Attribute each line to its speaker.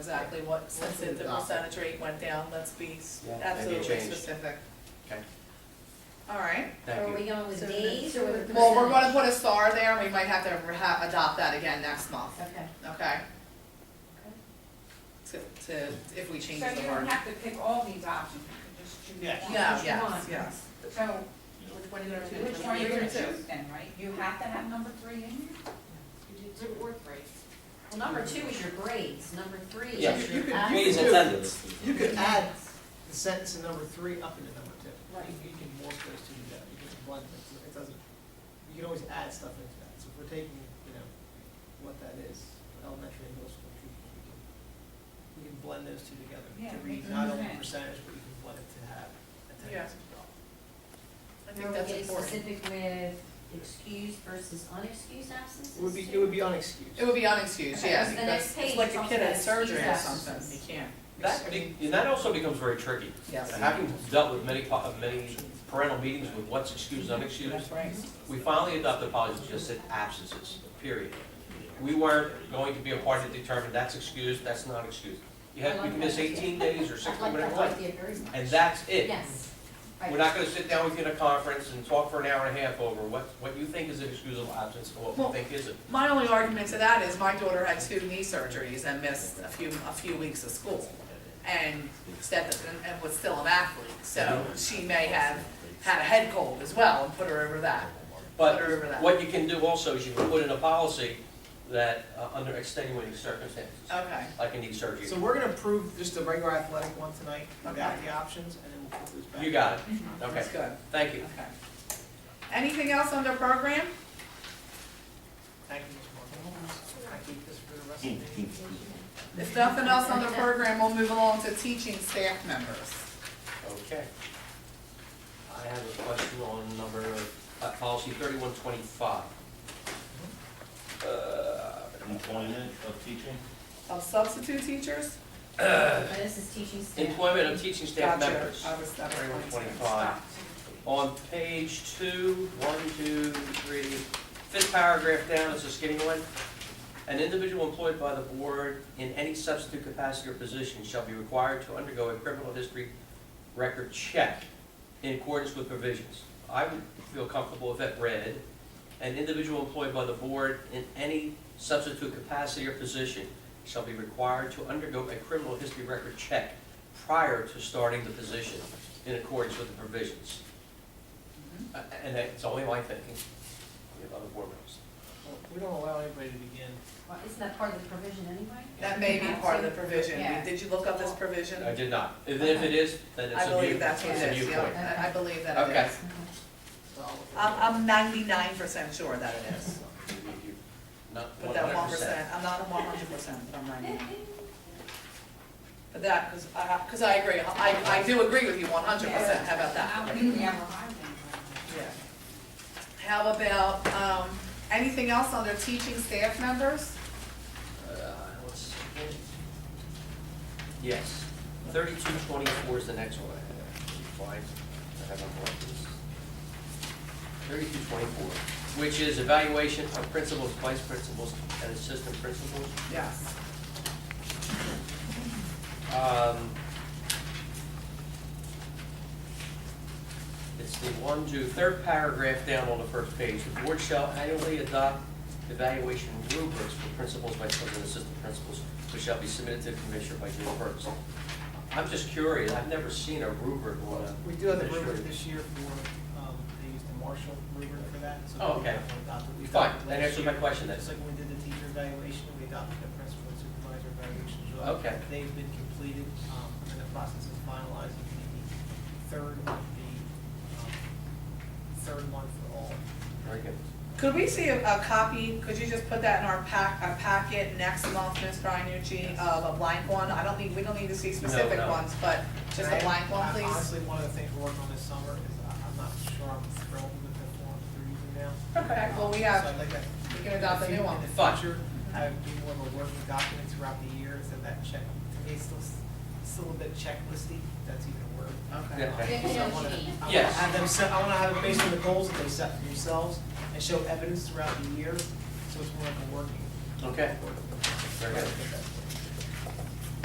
Speaker 1: exactly what, since it- the percentage rate went down, let's be s-
Speaker 2: Yeah, maybe it
Speaker 1: absolutely
Speaker 2: changed.
Speaker 1: specific.
Speaker 2: Okay,
Speaker 1: All right.
Speaker 2: thank
Speaker 3: Are we
Speaker 2: you.
Speaker 3: going with
Speaker 1: So
Speaker 3: days or with?
Speaker 1: Well, we're gonna
Speaker 3: percentage?
Speaker 1: put a star there, and we might have to ha- adopt that again next month,
Speaker 3: Okay.
Speaker 1: okay? To, to, if we change
Speaker 4: So you
Speaker 1: the
Speaker 4: don't
Speaker 1: word.
Speaker 4: have to pick all these options, you can just choose.
Speaker 5: Yes.
Speaker 4: one.
Speaker 1: No,
Speaker 3: Which
Speaker 1: yes,
Speaker 3: one?
Speaker 1: yes.
Speaker 4: So
Speaker 1: Which one are you gonna choose?
Speaker 4: which one are you gonna
Speaker 1: Number two.
Speaker 4: choose then, right? You have to have number three in here?
Speaker 3: Well, number two is your grades, number three
Speaker 2: Yeah.
Speaker 3: is
Speaker 5: You
Speaker 3: your.
Speaker 5: could-
Speaker 3: act-
Speaker 5: you
Speaker 2: Means
Speaker 5: could-
Speaker 2: attendance.
Speaker 5: You could add the sentence in number three up into number two. Right. You can morph those two together, you can blend them, so it doesn't, you can always add stuff into that. So if we're taking, you know, what that is, for elementary and middle school people, we can, we can blend those two together. You can
Speaker 4: Yeah,
Speaker 5: read
Speaker 4: make them
Speaker 5: not only
Speaker 4: match.
Speaker 5: percentage, but you can blend it to have attendance as well.
Speaker 1: I
Speaker 3: Are
Speaker 1: think
Speaker 3: we
Speaker 1: that's important.
Speaker 3: getting specific with excused versus unexcused absences?
Speaker 5: It would be, it would be unexcused.
Speaker 1: It would be unexcused,
Speaker 3: Okay,
Speaker 1: yeah,
Speaker 3: so the
Speaker 1: because
Speaker 3: next
Speaker 1: it's
Speaker 3: page
Speaker 1: like a
Speaker 3: talks
Speaker 1: kid had
Speaker 3: about
Speaker 1: surgery or
Speaker 3: excused
Speaker 1: something, you
Speaker 3: absences.
Speaker 1: can't.
Speaker 2: That, be- and that also becomes very tricky.
Speaker 1: Yes.
Speaker 2: Having dealt with many, po- many parental meetings with what's excused, unexcused,
Speaker 1: That's right.
Speaker 2: we finally adopted policy that just said absences, period. We weren't going to be a part to determine that's excused, that's not excused. You have, you can miss eighteen days or
Speaker 3: I'd
Speaker 2: sixteen,
Speaker 3: like,
Speaker 2: whatever,
Speaker 3: I'd
Speaker 2: you like,
Speaker 3: like the very much.
Speaker 2: and that's it.
Speaker 3: Yes.
Speaker 2: We're not gonna sit down with you in a conference and talk for an hour and a half over what, what you think is an excusable absence and what
Speaker 1: Well-
Speaker 2: we think isn't.
Speaker 1: My only argument to that is my daughter had two knee surgeries and missed a few, a few weeks of school. And stepped, and- and was still an athlete, so she may have had a head cold as well and put her over that.
Speaker 2: But
Speaker 1: Put her over that.
Speaker 2: what you can do also is you can put in a policy that, uh, under extenuating circumstances,
Speaker 1: Okay,
Speaker 2: like a knee surgery.
Speaker 5: So we're gonna approve just the regular athletic one tonight, without the options, and then we'll put those back.
Speaker 2: You got it, okay,
Speaker 1: Mm-hmm. that's good,
Speaker 2: thank you.
Speaker 1: okay. Anything else on the program?
Speaker 5: Thank you, Ms. Morgan. Can I keep this for the rest of the meeting?
Speaker 2: Mm-hmm.
Speaker 1: If nothing else on the program, we'll move along to teaching staff members.
Speaker 2: Okay. I have a question on number, uh, policy thirty-one twenty-five.
Speaker 6: Employment of teaching?
Speaker 1: Of substitute teachers?
Speaker 3: This is teaching staff.
Speaker 2: Employment of teaching staff
Speaker 1: Gotcha.
Speaker 2: members.
Speaker 1: I was- that was
Speaker 2: Thirty-one
Speaker 1: my mistake.
Speaker 2: twenty-five. On page two, one, two, three, fifth paragraph down, it's a skinny one. An individual employed by the board in any substitute capacity or position shall be required to undergo a criminal history record check in accordance with provisions. I would feel comfortable if that read, an individual employed by the board in any substitute capacity or position shall be required to undergo a criminal history record check prior to starting the position in accordance with the provisions. Uh, And it's only my thinking, we have other board members.
Speaker 5: Well, We don't allow anybody to begin.
Speaker 3: Well, Isn't that part of the provision anyway?
Speaker 1: That may be part of the provision.
Speaker 4: Yeah.
Speaker 1: Did you look up this provision?
Speaker 2: I did not. And If it is, then it's
Speaker 1: I
Speaker 2: a
Speaker 1: believe
Speaker 2: new,
Speaker 1: that's what
Speaker 2: it's a
Speaker 1: it
Speaker 2: new
Speaker 1: is,
Speaker 2: point.
Speaker 1: yeah, I- I believe that it
Speaker 2: Okay.
Speaker 1: is.
Speaker 5: So I'll-
Speaker 1: I'm, I'm ninety-nine percent sure that it is,
Speaker 2: Not
Speaker 1: but that one
Speaker 2: 100%.
Speaker 1: percent, I'm not one hundred percent, but I'm ninety-nine. But that, because I, because I agree, I, I do agree with you one hundred percent, how about
Speaker 4: I
Speaker 1: that?
Speaker 4: don't think we have a high one.
Speaker 1: Yeah. How about, um, anything else on the teaching staff members?
Speaker 2: Uh, let's see. Yes, thirty-two twenty-four is the next one. Fine, I have my markers. Thirty-two twenty-four, which is evaluation of principals, vice principals, and assistant principals.
Speaker 1: Yes.
Speaker 2: Um, It's the one, two, third paragraph down on the first page. The board shall annually adopt evaluation rubrics for principals, vice principals, and assistant principals, which shall be submitted to the commissioner by June first. I'm just curious, I've never seen a rubric on a.
Speaker 5: We do have the
Speaker 2: administrative-
Speaker 5: rubric this year for, um, they used the Marshall rubric for that, so.
Speaker 2: Oh,
Speaker 5: we
Speaker 2: okay.
Speaker 5: have one adopted. We
Speaker 2: Fine,
Speaker 5: adopted
Speaker 2: that
Speaker 5: last
Speaker 2: answers my
Speaker 5: year.
Speaker 2: question then.
Speaker 5: Just like when we did the teacher evaluation, we adopted the principal and supervisor evaluation. as well.
Speaker 2: Okay.
Speaker 5: They've been completed, um, and in the process of finalizing the third, of the, um, third one for all.
Speaker 2: Very good.
Speaker 1: Could we see a, a copy, could you just put that in our pack, a packet next month, Ms. Brianucci, of a blank one? I don't need, we don't need to see specific
Speaker 2: no.
Speaker 1: ones, but just a
Speaker 5: Right?
Speaker 1: blank one,
Speaker 5: Uh,
Speaker 1: please.
Speaker 5: Honestly, one of the things we're working on this summer is I- I'm not sure I'm thrilled with the form they're using now.
Speaker 1: Okay, well, we
Speaker 5: So I'd
Speaker 1: have,
Speaker 5: like to
Speaker 1: we can adopt a new one.
Speaker 5: In the
Speaker 2: Fine.
Speaker 5: future, I would do more of a working document throughout the year, so that check, to me, it's still, still a bit checklisty, if that's even a word.
Speaker 1: Okay.
Speaker 2: Yeah.
Speaker 5: Um,
Speaker 3: Okay.
Speaker 5: so I wanna- I wanna
Speaker 2: Yes.
Speaker 5: Have them set, I wanna have it based on the goals that they set for themselves, and show evidence throughout the year, so it's more like a working.
Speaker 2: Okay.
Speaker 5: working-
Speaker 2: Very good.
Speaker 5: Okay.